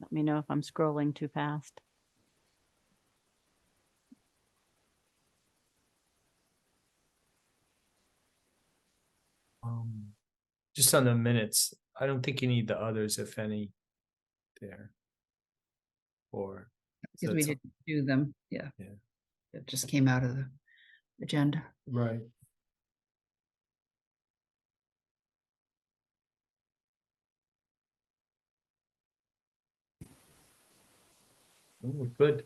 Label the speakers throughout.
Speaker 1: Let me know if I'm scrolling too fast.
Speaker 2: Um, just on the minutes, I don't think you need the others, if any, there. Or. so
Speaker 3: Because we
Speaker 2: it's-
Speaker 3: didn't do them, yeah.
Speaker 2: Yeah.
Speaker 3: It just came out of the agenda.
Speaker 2: Right. Ooh, Good.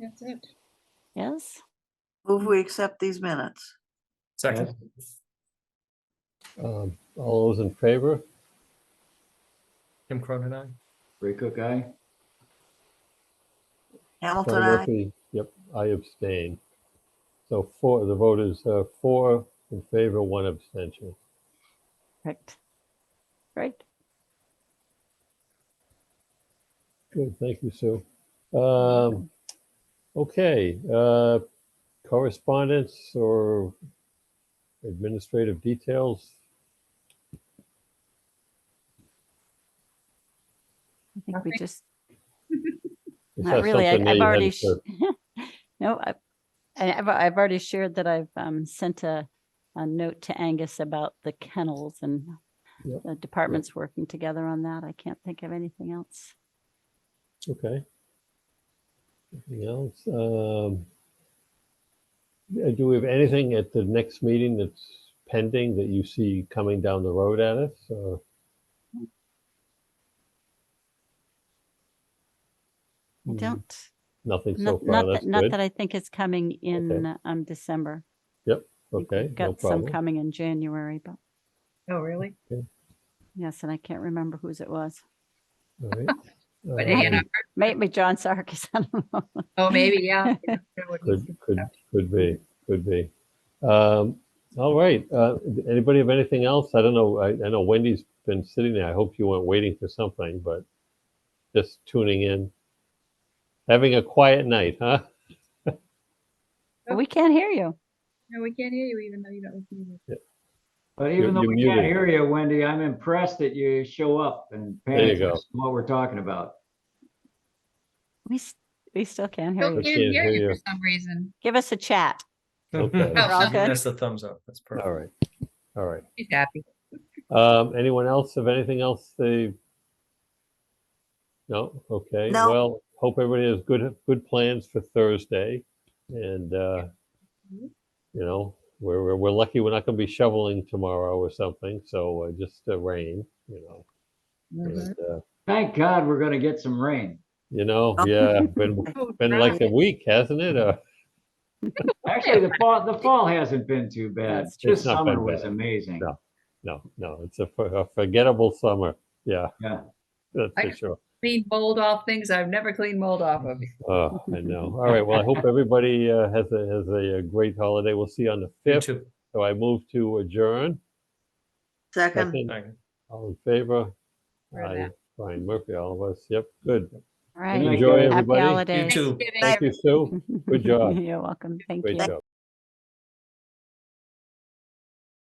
Speaker 3: That's it.
Speaker 1: Yes?
Speaker 4: Move we accept these minutes.
Speaker 2: Second,
Speaker 5: Um, all those in favor?
Speaker 2: Tim Cronin, aye.
Speaker 6: Ray Cook, aye.
Speaker 4: Hamilton,
Speaker 5: Charlie
Speaker 4: I.
Speaker 5: Murphy, Yep, I abstain. So four, the vote is uh, four in favor, one abstention.
Speaker 1: Correct. Right.
Speaker 5: Good, thank you, Sue. Um, okay, uh, correspondence or administrative details?
Speaker 1: I think we
Speaker 3: Nothing.
Speaker 1: just,
Speaker 5: Is
Speaker 1: not
Speaker 5: that
Speaker 1: really. I-
Speaker 5: something that
Speaker 1: I've
Speaker 5: you had
Speaker 1: already,
Speaker 5: to-
Speaker 1: sh- no, I- I- I've, I've already shared that I've um, sent a, a note to Angus about the kennels and
Speaker 5: Yep,
Speaker 1: the departments working together on that. I can't think of anything else.
Speaker 5: Okay. Anything else? Um, uh, Do we have anything at the next meeting that's pending that you see coming down the road at us? or-
Speaker 1: I
Speaker 5: Hmm,
Speaker 1: Don't,
Speaker 5: Nothing so
Speaker 1: not,
Speaker 5: far,
Speaker 1: not
Speaker 5: that's
Speaker 1: that, not
Speaker 5: good.
Speaker 1: that I think it's coming in um, December. I think
Speaker 5: Okay,
Speaker 1: we've
Speaker 5: no
Speaker 1: Got some
Speaker 5: problem.
Speaker 1: coming in January, but
Speaker 3: Oh, really?
Speaker 1: yes, and I can't remember whose it was.
Speaker 5: All right.
Speaker 3: But
Speaker 5: Um,
Speaker 3: Anna-
Speaker 1: Maybe John Sarkis, I don't know.
Speaker 3: Oh, maybe, yeah.
Speaker 5: Could, could, could be, could be. Um, all right, uh, anybody have anything else? I don't know, I, I know Wendy's been sitting there, I hope you weren't waiting for something, but just tuning in. Having a quiet night, huh?
Speaker 1: But We can't hear you.
Speaker 3: No, we can't hear you even though you don't. have music.
Speaker 6: But even though
Speaker 5: you're
Speaker 6: we can't
Speaker 5: muted.
Speaker 6: hear you, Wendy, I'm impressed that you show up and
Speaker 5: you
Speaker 6: pay
Speaker 5: go.
Speaker 6: attention to what we're talking about.
Speaker 1: We, s- we still can't hear
Speaker 3: Still
Speaker 1: you.
Speaker 3: can't hear you for some reason.
Speaker 1: Give us a chat.
Speaker 5: Okay.
Speaker 1: We're all good?
Speaker 2: That's the thumbs up, that's perfect.
Speaker 5: All right, all right.
Speaker 3: She's happy.
Speaker 5: Um, anyone else have anything else they? No, okay,
Speaker 4: No.
Speaker 5: well, hope everybody has good, good plans for Thursday. And, uh,
Speaker 3: Mhm.
Speaker 5: you know, we're, we're- we're lucky we're not gonna be shoveling tomorrow or something, so uh, just uh, rain, you know.
Speaker 3: Mhm.
Speaker 4: Mm-hmm.
Speaker 5: and, uh,
Speaker 6: Thank God we're gonna get some rain.
Speaker 5: You know,
Speaker 4: Oh.
Speaker 5: yeah, been, been like a week, hasn't it? Uh,
Speaker 6: Actually, the fall, the fall hasn't been too bad.
Speaker 1: That's true.
Speaker 6: This
Speaker 5: It's not
Speaker 6: summer
Speaker 5: been
Speaker 6: was
Speaker 5: bad.
Speaker 6: amazing.
Speaker 5: No. No, no, it's a for- a forgettable summer, yeah,
Speaker 6: Yeah.
Speaker 5: that's
Speaker 3: I-
Speaker 5: for sure.
Speaker 3: Clean mold off things I've never cleaned mold off of.
Speaker 5: Oh, I know. All right. Well, I hope everybody uh, has a has a, uh great holiday. We'll see you on the
Speaker 2: You
Speaker 5: fifth.
Speaker 2: too.
Speaker 5: So I move to adjourn.
Speaker 4: Second,
Speaker 5: Second,
Speaker 2: Thank you.
Speaker 5: all in favor?
Speaker 3: Right
Speaker 5: Aye.
Speaker 3: now.
Speaker 5: Brian Murphy, all of us. Yep. Good.
Speaker 1: All right.
Speaker 6: you.
Speaker 5: Enjoy
Speaker 6: Happy
Speaker 1: Happy
Speaker 5: everybody.
Speaker 1: holidays.
Speaker 2: too.
Speaker 3: Thanksgiving.
Speaker 5: Thank you, Sue. Good job.
Speaker 1: You're welcome. Thank you.
Speaker 5: Great job.